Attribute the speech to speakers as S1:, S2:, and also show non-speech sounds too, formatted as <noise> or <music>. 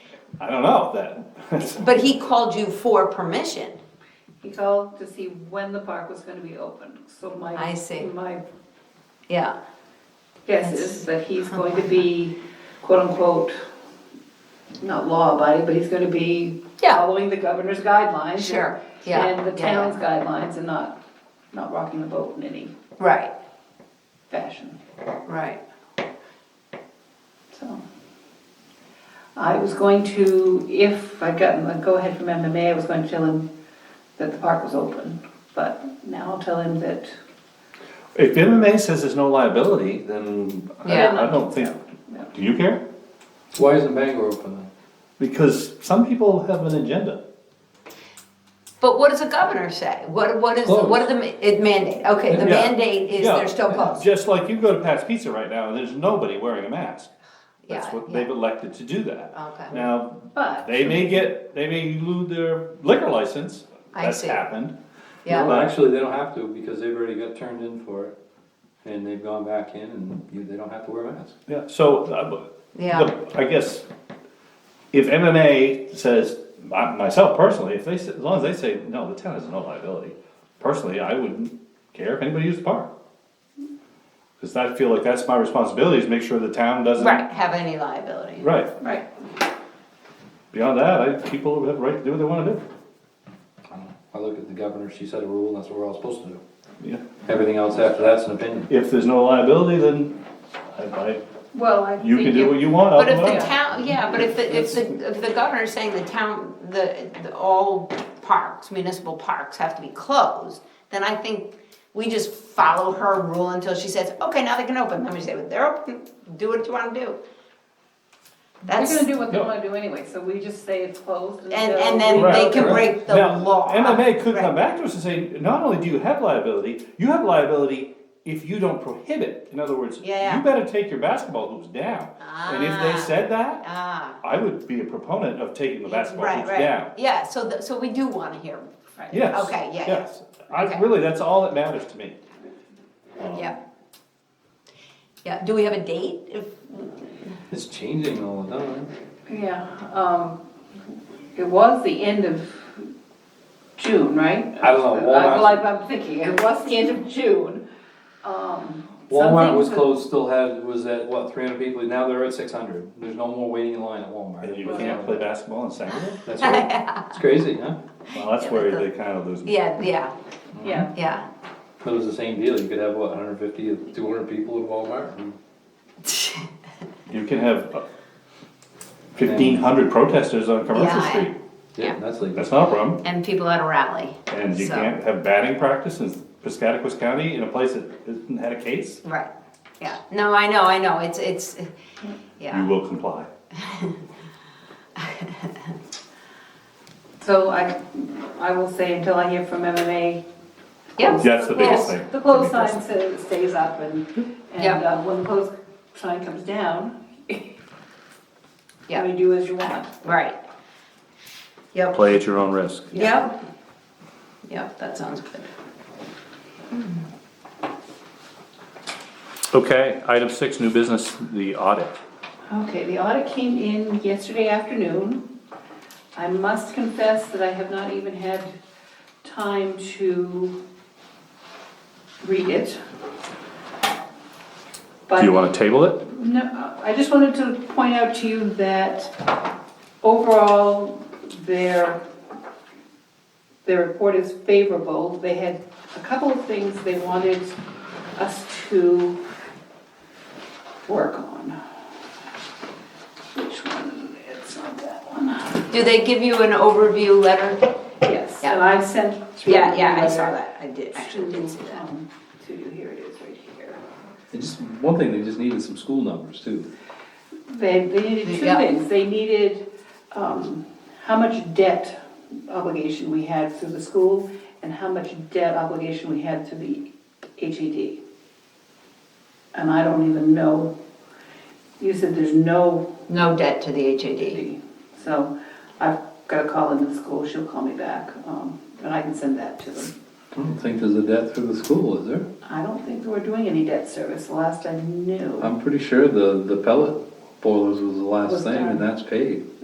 S1: I don't know that. <laughs>
S2: But he called you for permission.
S3: He called to see when the park was gonna be opened, so my.
S2: I see.
S3: My
S2: Yeah.
S3: guess is that he's going to be quote unquote, not law abiding, but he's gonna be
S2: Yeah.
S3: following the governor's guidelines. and-
S2: Sure, yeah,
S3: And the
S2: yeah, yeah.
S3: town's guidelines and not, not rocking the boat in any
S2: Right.
S3: fashion,
S2: Right.
S3: so. I was going to, if I'd gotten the go-ahead from MMA, I was going to tell him that the park was open, but now I'll tell him that,
S1: If MMA says there's no liability, then I-
S2: Yeah.
S1: I don't think,
S3: no.
S1: do you care?
S4: Why isn't Bangor open then?
S1: Because some people have an agenda.
S2: But what does the governor say? What, what is,
S4: Closed.
S2: what are the ma- it mandate? Okay, the
S1: Yeah.
S2: mandate is
S1: Yeah,
S2: they're still closed.
S1: Just like you go to Pat's Pizza right now and there's nobody wearing a mask. That's
S2: Yeah,
S1: what,
S2: yeah. Um,
S1: they've elected to do that.
S2: Okay.
S1: Now,
S3: but.
S1: they may get, they may lose their liquor license.
S2: I
S1: That's
S2: see.
S1: happened.
S2: Yeah,
S4: Well, actually, they don't have to, because they've already got turned in for it, and they've gone back in, and you- they don't have to wear a mask.
S1: Yeah, so, uh, but-
S2: Yeah.
S1: the- I guess, if MMA says, my- myself personally, if they, s- as long as they say, no, the town has no liability, personally, I wouldn't care if anybody used the park. Cause I feel like that's my responsibility, is make sure the town doesn't.
S2: right, have any liability.
S1: Right,
S3: Right.
S1: beyond that, I, people have the right to do what they wanna do,
S4: I don't know. I look at the governor, she set a rule, and that's what we're all supposed to do.
S1: yeah,
S4: Everything else after that's an opinion.
S1: if there's no liability, then I, I,
S3: Well, I think.
S1: you can do
S3: if-
S1: what you want, I'll
S2: But
S1: do
S2: if
S1: what I
S2: the
S1: want.
S2: town, yeah, but if the, if the, if the governor's saying the town, the, the, all parks, municipal parks have to be closed, then I think we just follow her rule until she says, okay, now they can open, then we say, well, they're open, do what you wanna do.
S3: They're
S2: That's,
S3: gonna do what they
S1: No.
S3: wanna do anyway, so we just say it's closed until.
S2: and, and then
S1: Right,
S2: they can break the
S1: Now,
S2: law.
S1: MMA could come
S2: Right.
S1: back to us and say, not only do you have liability, you have liability if you don't prohibit. In other words,
S2: Yeah, yeah.
S1: you better take your basketball hoops down. And if
S2: Ah.
S1: they said that,
S2: Ah,
S1: I would be a proponent of taking the basketball
S2: right,
S1: hoops
S2: right,
S1: down.
S2: yeah, so, th- so we do wanna hear,
S3: Right.
S1: Yes.
S2: Okay, yeah, yeah.
S1: Yes. I,
S2: Okay.
S1: really, that's all that matters to me. Um,
S2: yeah. Yeah, do we have a date if,
S4: It's changing all the time.
S3: Yeah, um, it was the end of June, right?
S4: I don't know, Walmart-
S3: Well, I'm I'm thinking, it was the end of June. Um,
S4: Walmart
S3: something
S4: was
S3: to-
S4: closed, still had, was at, what, three hundred people, now they're at six hundred. There's no more waiting in line at
S1: And
S4: Walmart.
S1: you can't play basketball on
S2: <laughs>
S1: Saturday?
S4: That's right. It's crazy, huh?
S1: Well, that's where they kind of lose me.
S2: yeah, yeah,
S3: Yeah,
S2: yeah. <laughs>
S4: But it was the same deal, you could have, what, 150 or 200 people at Walmart? and-
S1: You can have uh, fifteen hundred protesters on Commercial
S2: Yeah, I-
S1: Street.
S2: Yeah.
S4: Yeah, that's legal.
S1: That's not a problem.
S2: and people at a rally.
S1: And you
S2: So,
S1: can't have batting practice in Piscataquis County in a place that hasn't had a case?
S2: Right, yeah, no, I know, I know, it's, it's,
S1: You
S2: yeah,
S1: will comply.
S3: so I, I will say until I hear from MMA.
S2: yeah,
S1: That's the biggest
S3: close-
S1: thing.
S3: The close sign sa- stays up and, and
S2: Yeah.
S3: uh, when the close sign comes down,
S2: yeah,
S3: you do as you want.
S2: right. Yep,
S1: Play at your own risk.
S2: yep, yep, that sounds good.
S1: Okay, item six, new business, the audit.
S3: Okay, the audit came in yesterday afternoon. I must confess that I have not even had time to read it. But,
S1: to table it?
S3: no, I just wanted to point out to you that overall, their, their report is favorable. They had a couple of things they wanted us to work on. Which one? It's not that one.
S2: Do they give you an overview letter?
S3: Yes, and I sent. through
S2: Yeah, yeah, I saw
S3: the-
S2: that, I did, actually did see
S3: To,
S2: that.
S3: um, to you, here it is, right here.
S4: Just, one thing, they just needed some school numbers too.
S3: They, they needed two
S2: Yeah.
S3: things, they needed, um, how much debt obligation we had through the school, and how much debt obligation we had through the HED. And I don't even know, you said there's no, E
S2: No debt to the HAD.
S3: so I've got a call into the school, she'll call me back, um, and I can send that to them.
S4: I don't think there's a debt through the school, is there?
S3: I don't think we're doing any debt service, last I knew.
S4: I'm pretty sure the, the pellet boilers was the
S3: Was
S4: last thing,
S3: done.
S4: and that's paid.